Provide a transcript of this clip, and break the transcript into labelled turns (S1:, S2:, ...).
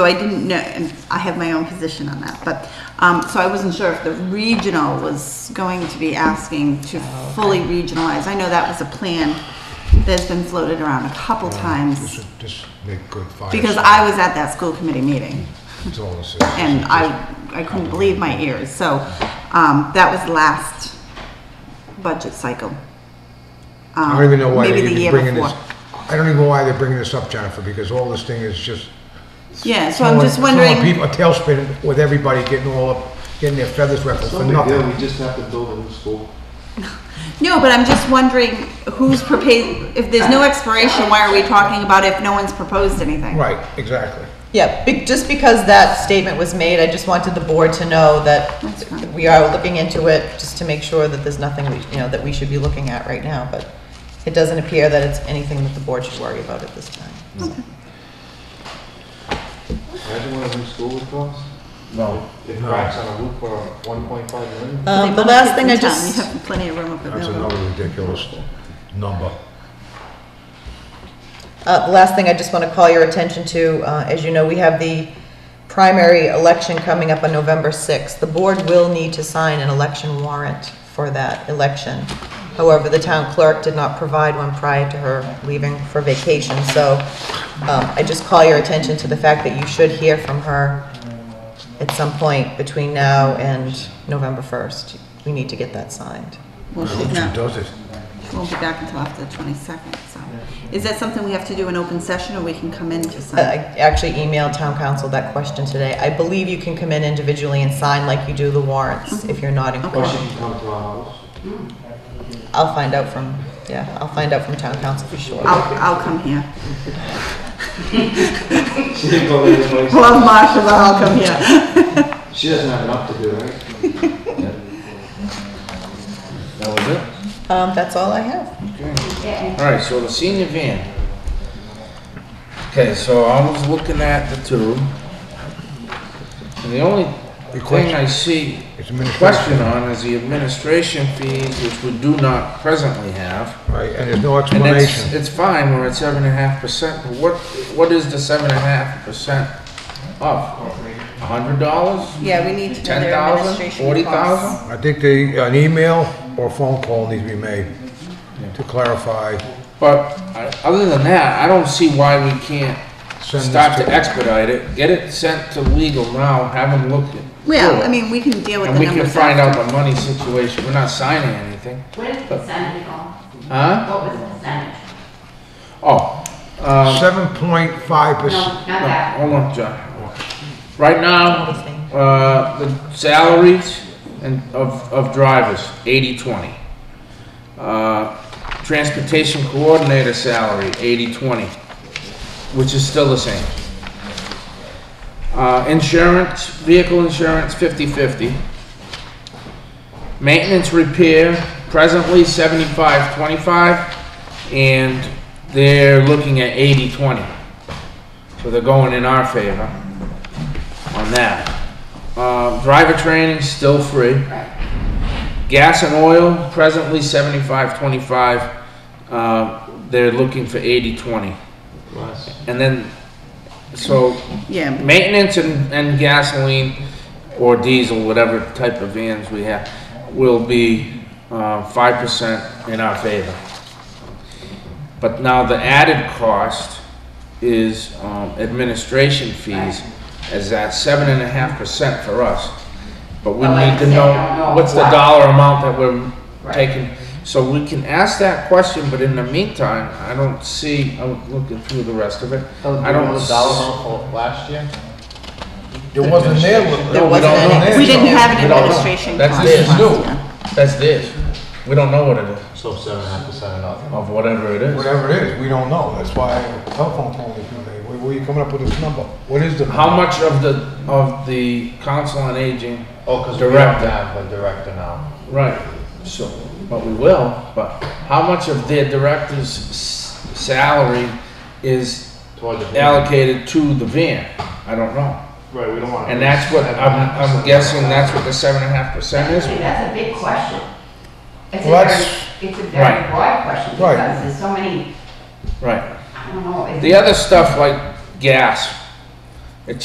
S1: So I didn't know, and I have my own position on that, but, um, so I wasn't sure if the regional was going to be asking to fully regionalize. I know that was a plan that's been floated around a couple
S2: This
S1: times,
S2: would just make good fire.
S1: because I was at that school committee meeting,
S2: That's all this is.
S1: and I, I couldn't believe my ears, so, um, that was last budget cycle.
S2: I don't even know why
S1: uh, Maybe
S2: they're
S1: the
S2: even
S1: year
S2: bringing this,
S1: before.
S2: I don't even know why they're bringing this up, Jennifer, because all this thing is just.
S1: Yeah, so I'm
S2: throwing-
S1: just
S2: throwing
S1: wondering.
S2: People, a tailspin with everybody getting all up, getting their feathers ruffled for
S3: Something there,
S2: nothing.
S3: we just have to build a new school.
S1: No, but I'm just wondering who's proposing, if there's no expiration, why are we talking about it if no one's proposed anything?
S2: Right, exactly.
S4: Yeah, be- just because that statement was made, I just wanted the board to know that
S1: That's fine.
S4: we are looking into it, just to make sure that there's nothing, we you know, that we should be looking at right now, but it doesn't appear that it's anything that the board should worry about at this time.
S3: Imagine what a new school would cost.
S2: No.
S3: It cracks on a roof for one point five million.
S4: Um, The last thing I
S1: It's in town,
S4: just.
S1: You have plenty of room up at
S2: That's
S1: Millville.
S2: another ridiculous number.
S4: Uh, The last thing I just want to call your attention to, uh, as you know, we have the primary election coming up on November 6th. The board will need to sign an election warrant for that election. However, the town clerk did not provide one prior to her leaving for vacation, so um, I just call your attention to the fact that you should hear from her at some point between now and November 1st. We need to get that signed.
S1: Well,
S2: Who
S1: she's not,
S2: does it?
S1: she won't be back until after the 22nd, so. Is that something we have to do in open session, or we can come in to
S4: Uh, I I
S1: sign?
S4: actually emailed town council that question today. I believe you can come in individually and sign like you do the warrants if you're not in
S3: Or
S4: court.
S3: she can come to our house.
S4: I'll find out from, yeah, I'll find out from town council for sure.
S1: I'll, I'll come here.
S3: She didn't go to the place.
S1: Love Marshall, but I'll come here.
S3: She doesn't have enough to do, right?
S5: That was it?
S4: Um, that's all I have.
S5: Okay. All right, so the senior van. Okay, so I was looking at the two. And the only thing I see
S2: It's administration,
S5: question on is the administration fees, which we do not presently have.
S2: right, and there's no
S5: And it's,
S2: explanation.
S5: it's fine, we're at seven and a half percent, but what, what is the seven and a half percent of? A hundred dollars?
S1: Yeah, we need to
S5: Ten thousand? Forty thousand?
S2: I think the, an email or phone call needs to be made to clarify.
S5: But I- other than that, I don't see why we can't
S2: Send this
S5: start
S2: to-
S5: to expedite it, get it sent to legal now, have them look at.
S1: Well,
S5: through it,
S1: I mean, we can deal with
S5: And
S1: the
S5: we can
S1: numbers
S5: find out
S1: after.
S5: the money situation, we're not signing anything,
S6: What is the percentage on?
S5: huh?
S6: What was the percentage?
S5: Oh, uh,
S2: Seven point five
S6: No,
S2: percent.
S6: not
S5: no,
S6: that.
S5: hold on, John. Right now, uh, the salaries and of, of drivers, eighty, twenty. Uh, transportation coordinator salary, eighty, twenty, which is still the same. Uh, insurance, vehicle insurance, fifty-fifty. Maintenance repair, presently seventy-five, twenty-five, and they're looking at eighty, twenty. So they're going in our favor on that. Uh, driver training, still free. Gas and oil, presently seventy-five, twenty-five. Uh, they're looking for eighty, twenty.
S3: Less.
S5: And then, so
S1: Yeah,
S5: maintenance and, and gasoline or diesel, whatever type of vans we have, will be uh, five percent in our favor. But now the added cost is um, administration fees, as that seven and a half percent for us. But we
S6: But like
S5: need to
S6: I said, I don't
S5: know
S6: know
S5: what's the
S6: why.
S5: dollar amount that we're
S6: Right.
S5: taking. So we can ask that question, but in the meantime, I don't see, I'm looking through the rest of it. I don't.
S3: know the dollar amount for last year.
S2: There wasn't there.
S5: No,
S4: There
S5: we
S4: wasn't
S5: don't know.
S4: any.
S1: we didn't have
S5: We
S1: an
S5: don't know.
S1: administration
S5: That's
S1: cost
S5: this.
S1: last
S5: No.
S1: year.
S5: That's this. We don't know what it is,
S3: So seven and a half percent of nothing.
S5: of whatever it is.
S2: Whatever it is, we don't know. That's why telephone call is today. Where, where you coming up with this number? What is the?
S5: How much of the, of the council on aging,
S3: Oh, cause we don't
S5: Director.
S3: have a director now.
S5: right, so, but we will, but how much of their director's s- salary is
S3: Toward the.
S5: allocated to the van? I don't know.
S3: Right, we don't want.
S5: And that's what, I'm, I'm guessing that's what the seven and a half percent is.
S6: Actually, that's a big question. It's a
S2: Well,
S6: very,
S2: that's-
S6: it's a
S5: Right.
S6: very broad question
S2: Right.
S6: because there's so many,
S5: Right.
S6: I don't know. is
S5: The
S6: it-
S5: other stuff like gas,